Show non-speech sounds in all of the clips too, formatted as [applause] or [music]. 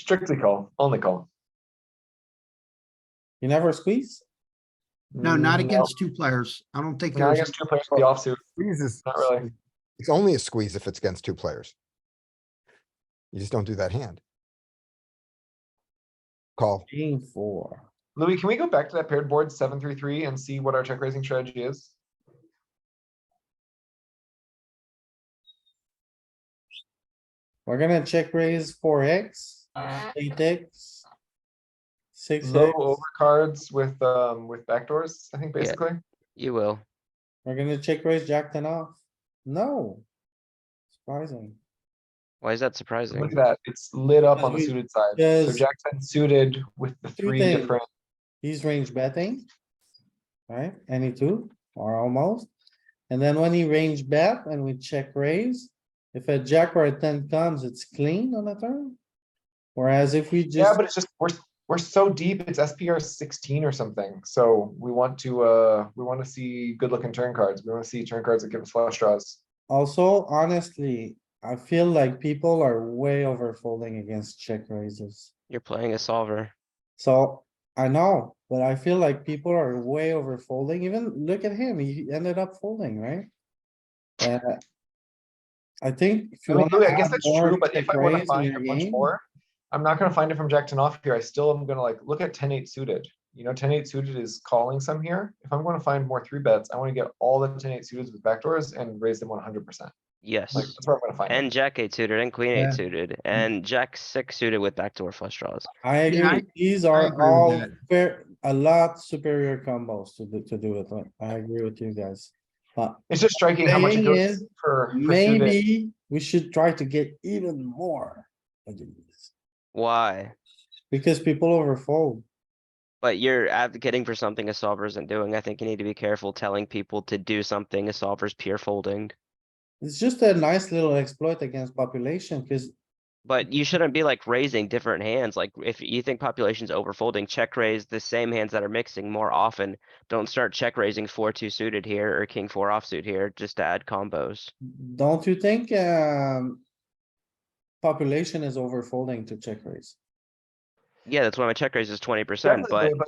Strictly call, only call. You never squeeze? No, not Mm, against two players. I don't think Not there's, against two players with the offsuit. Jesus. Not really. It's only a squeeze if it's against two players. You just don't do that hand. Call. King four. Louis, can we go back to that paired board seven, three, three and see what our check raising strategy is? We're gonna check raise four X, eight X. Six Low X, overcards with, um, with backdoors, I think Yeah. basically. You will. we're gonna check raise jack ten off. No. Surprising. Why is that Look at surprising? that, it's lit up Because on the we- suited side. So because- Jack ten suited with the Two three things. different, He's range betting. Right, any two or almost. And then when he range bet and we check raise, if a jack or a ten comes, it's clean on the turn. Whereas if we yeah, just, but it's just, we're, we're so deep, it's SPR sixteen or something, so we want to, uh, we wanna see good looking turn cards, we wanna see turn cards that give us flush draws. also honestly, I feel like people are way over folding against check raises. You're playing a solver. So I know, but I feel like people are way over folding. Even look at him, he ended up folding, right? Uh, I think. if I you mean, wanna Louis, I guess add that's more true, but if check I wanna raise in find your a bunch game, more, I'm not gonna find it from Jack ten off here. I still am gonna like, look at 10-8 suited. You know, 10-8 suited is calling some here. If I'm gonna find more three bets, I wanna get all the 10-8 suited with backdoors and raise them one hundred percent. [laughs] Yes. Like, that's where I'm gonna find it. And jack eight suited and queen Yeah. eight suited Mm-hmm. and jack six suited with backdoor flush draws. I Yeah, agree, these are agree with all that. fair, a lot superior combos to do, to do it, like, I agree with you guys. But It's just striking how much it Thing goes is, for. for suited. maybe we should try to get even more. against- Why? Because people overfold. But you're advocating for something a solver isn't doing. I think you need to be careful telling people to do something a solver's pure folding. It's just a nice little exploit against population, cuz But you shouldn't be like raising different hands. Like if you think population's overfolding, check raise the same hands that are mixing more often. Don't start check raising four two suited here or king four offsuit here just to add combos. don't you think, um. Population is overfolding to check raise. Yeah, that's why my check raise is twenty percent, but Definitely,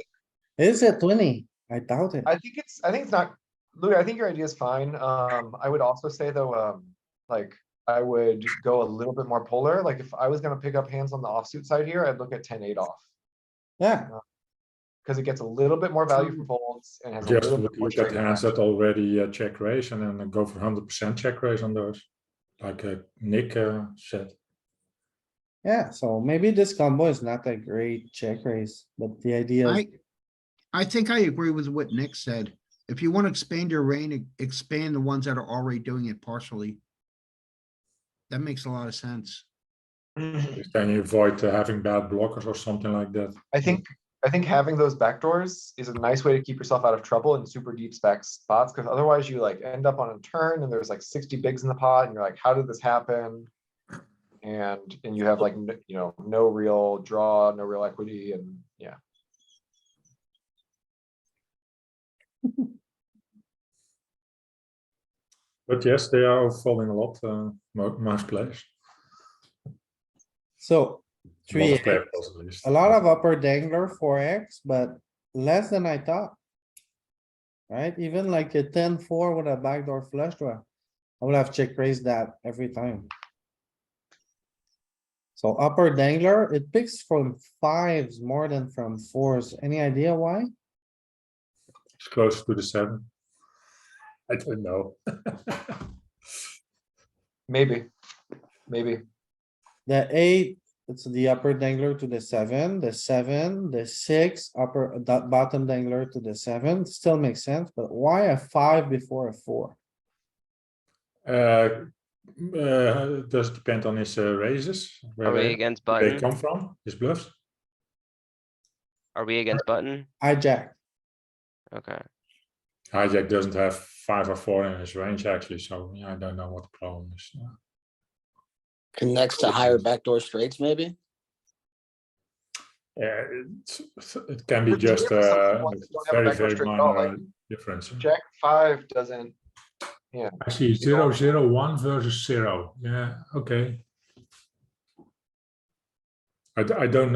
but Is it twenty? I doubt it. I think it's, I think it's not, Louis, I think your idea is fine. Um, I would also say though, um, like, I would go a little bit more polar. Like, if I was gonna pick up hands on the offsuit side here, I'd look at 10-8 off. Yeah, because it gets a little bit more value for folds and has a Just little bit look more look at straight. hands that already uh, check raise and then go for hundred percent check raise on those. Like uh, Nick uh, said, yeah, so maybe this combo is not a great check raise, but the idea is I, I think I agree with what Nick said. If you want to expand your reign, e, expand the ones that are already doing it partially. That makes a lot of sense. Because then you avoid uh, having bad blockers or something like that. I think, I think having those backdoors is a nice way to keep yourself out of trouble in super deep spec spots, because otherwise you like end up on a turn and there's like sixty bigs in the pot and you're like, how did this happen? And, and you have like, n- you know, no real draw, no real equity and yeah. But yes, they are falling a lot. Uh, mo- most players, So, three, Most player X. players at least. a lot of upper dangler, four X, but less than I thought. Right, even like a 10-4 with a backdoor flush draw, I would have check raised that every time. So upper dangler, it picks from fives more than from fours, any idea why? it's close to the seven. I don't know. [laughs] Maybe, maybe. The eight, it's the upper dangler to the seven, the seven, the six, upper, the bottom dangler to the seven, still makes sense, but why a five before a four? uh, uh, does it depend on his uh, raises? Where are we they, against they button? come from? His bluffs. Are we against button? Hijack. Okay. Hijack doesn't have five or four in his range actually, so yeah, I don't know what the problem is. yeah. Connects to higher backdoor straights, maybe? Yeah, it's, it can be But do you just ever sometimes uh, want to don't have a backdoor very, very straight draw, like, minor difference. Jack five doesn't, I see zero, zero, one versus zero. Yeah, okay. I, d- I don't